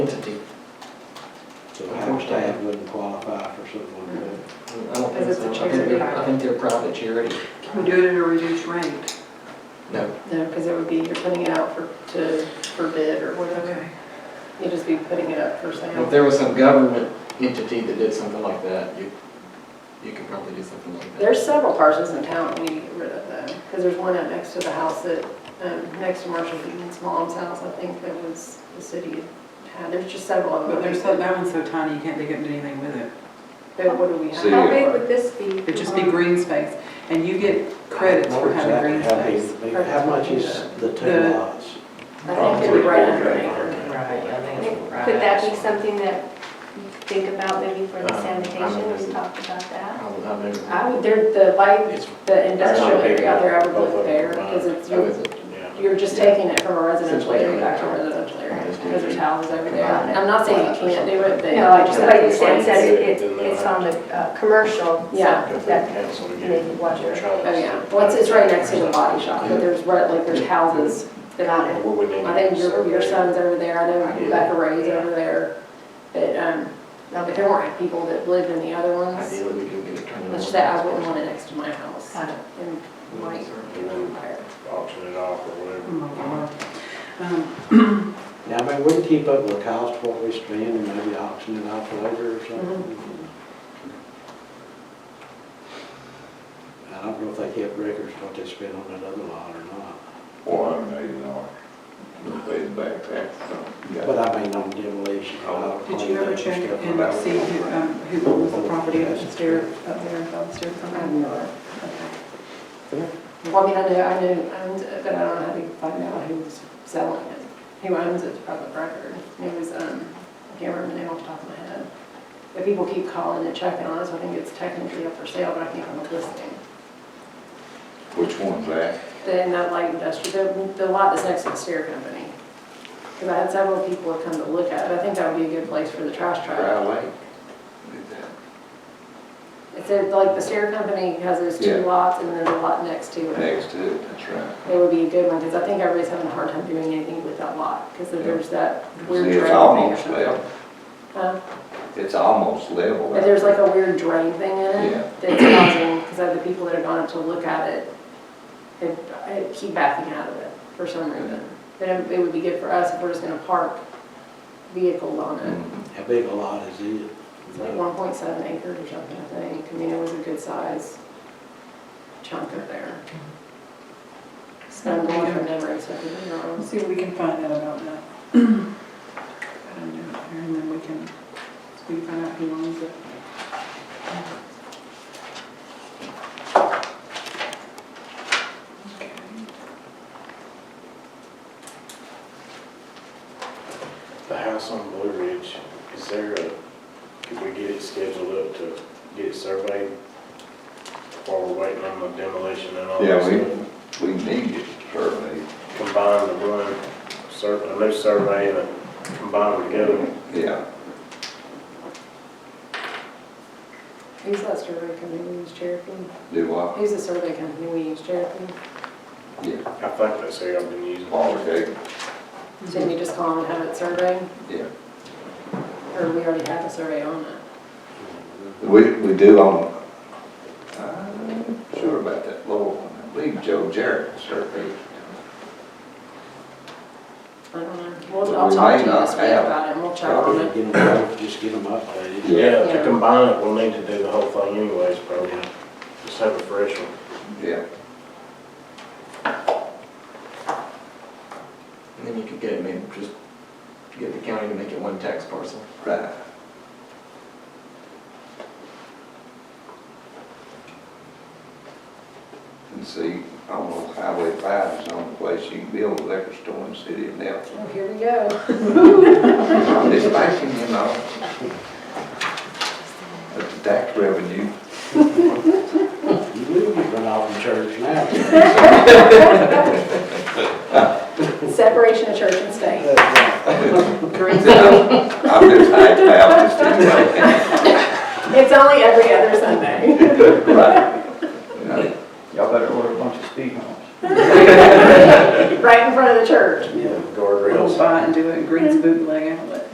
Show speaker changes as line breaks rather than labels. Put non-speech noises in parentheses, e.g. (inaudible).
staff wouldn't qualify for something like that.
I don't think
Because
so.
it's a
I think they're,
charity.
I think they're a private charity.
Can we do it at a reduced rate?
No,
No, because it would be, you're putting it out for, to, for bid or whatever. You'd just be putting it up for
if
sale.
there was some government entity that did something like that, you, you could probably do something like that.
There's several parcels in town we need to get rid of though, because there's one out next to the house that, um, next to Marshall Eaton's mom's house, I think that was, the city had, there's just several of them.
But there's, so- that one's so tiny, you can't dig up and do anything with it.
But what do we
See.
have?
Yeah.
How big would this be?
It'd just
Uh-huh.
be green space, and you get credits for having green
Exactly
space.
how big- big- How much is the two
The-
lots?
I think it'd be right under an acre.
Right, I think it's right.
Could that be something that you think about maybe for the
Um, I don't
sanitation,
know.
we talked about that?
I don't know, maybe.
I would, there, the light,
It's-
the industrial
That's not big
area out there, I would
enough, both
look
of them
there, because it's,
oh,
you're,
is it?
you're just taking it from a residential
Since we
area
don't
back to a
have-
residential area,
Just do
because there's
it.
houses over there.
Combine it.
I'm not saying you can't do it, but.
No, I just,
Yeah.
but you
Sam
said that it,
Then
it's on the, uh, commercial, so
Yeah.
that,
Council to get-
maybe what you're-
Oh, yeah, well, it's, it's right next to the body shop, but there's, right- like, there's houses that I know.
We would need
I think your, your
survey.
son's over there, I know Rebecca Ray's over there, but, um,
no,
if
but
there
there-
weren't people that lived in the other ones,
Ideally, we could get it turned on.
it's just that I wouldn't want it next to my house.
Got it.
And might
And then auction it off or whatever.
Oh, my God. Um,
Now, I mean, we can keep up with the cost of what we spend and maybe auction it off later or something.
Mm-hmm.
I don't know if they kept records what they spent on that other lot or not,
Four hundred and eighty dollars. Paid back taxes on.
but I mean, on demolition.
Oh,
Did you ever check and see who, um, who was the property up the stair, up there, above the stair
I have
company?
no idea. Well, I mean, I know, I know, owned it, but I don't know how to find out who's selling it, who owns it, public record. It was, um, I can't remember the name off the top of my head. But people keep calling and checking on it, so I think it's technically up for sale, but I can't find the listing.
Which one's that?
Then that light industrial, the, the lot that's next to the stair company. Because I had several people come to look at it, I think that would be a good place for the trash truck.
Dry Lake.
It's a- like, the stair company has those two
Yeah.
lots, and then the lot next to it.
Next to it, that's right.
It would be a good one, because I think everybody's having a hard time doing anything with that lot, because there's that weird drain.
See, it's
thing or
almost
something.
level,
Huh?
it's almost level.
But there's like a weird drain thing in
Yeah.
it that's causing, because of the people that have gone up to look at it, they I keep backing out of it for some reason. But it it would be good for us if we're just gonna park vehicles on it.
Mhm.
How big a lot is it?
It's like one point seven acres or something, I think, I mean, it was a good size chunk of there. So I'm going from memory, so I could be wrong.
Let's see if we can find out about that. I don't know, and then we can, we can find out who owns it. Okay.
The house on Blue Ridge, is there a, could we get it scheduled up to get it surveyed while we're waiting on the demolition and all
Yeah,
that
we,
stuff?
we need it surveyed,
Combine the one, sur- a new survey and a- combine them together.
yeah.
Who's that survey company we use, Cherokee?
Do I?
Who's the survey company we use, Cherokee?
Yeah.
I think that's who I've been using.
Okay,
So
Mm-hmm.
then you just call them and have it surveyed,
yeah.
or we already have a survey on it?
We, we do on, I'm sure about that little one, I believe Joe Jarrett surveyed.
I don't know. We'll,
We
I'll talk to you
may not
this week
have.
about it, and we'll check on
Probably
it.
get them, just get them updated.
Yeah,
Yeah.
to combine it, we'll need to do the whole thing anyways, probably. Just have a fresh one.
Yeah,
And then you could get, maybe just get the county to make it one tax parcel.
right. And see, I don't know, Highway five is the only place you can build a liquor store in the city of Nelson.
Oh, here we go.
I'm just thinking, you know. But the tax revenue,
You do get run off in church now.
Separation of church and state.
(laughs)
Green zone.
I'm just high Baptist anyway.
It's only every other Sunday. (laughs)
Right. You know,
Y'all better order a bunch of speed humps.
Right in front of the church.
Yeah.
We'll
Guardrails.
buy it and do it in Green's bootleg outlet.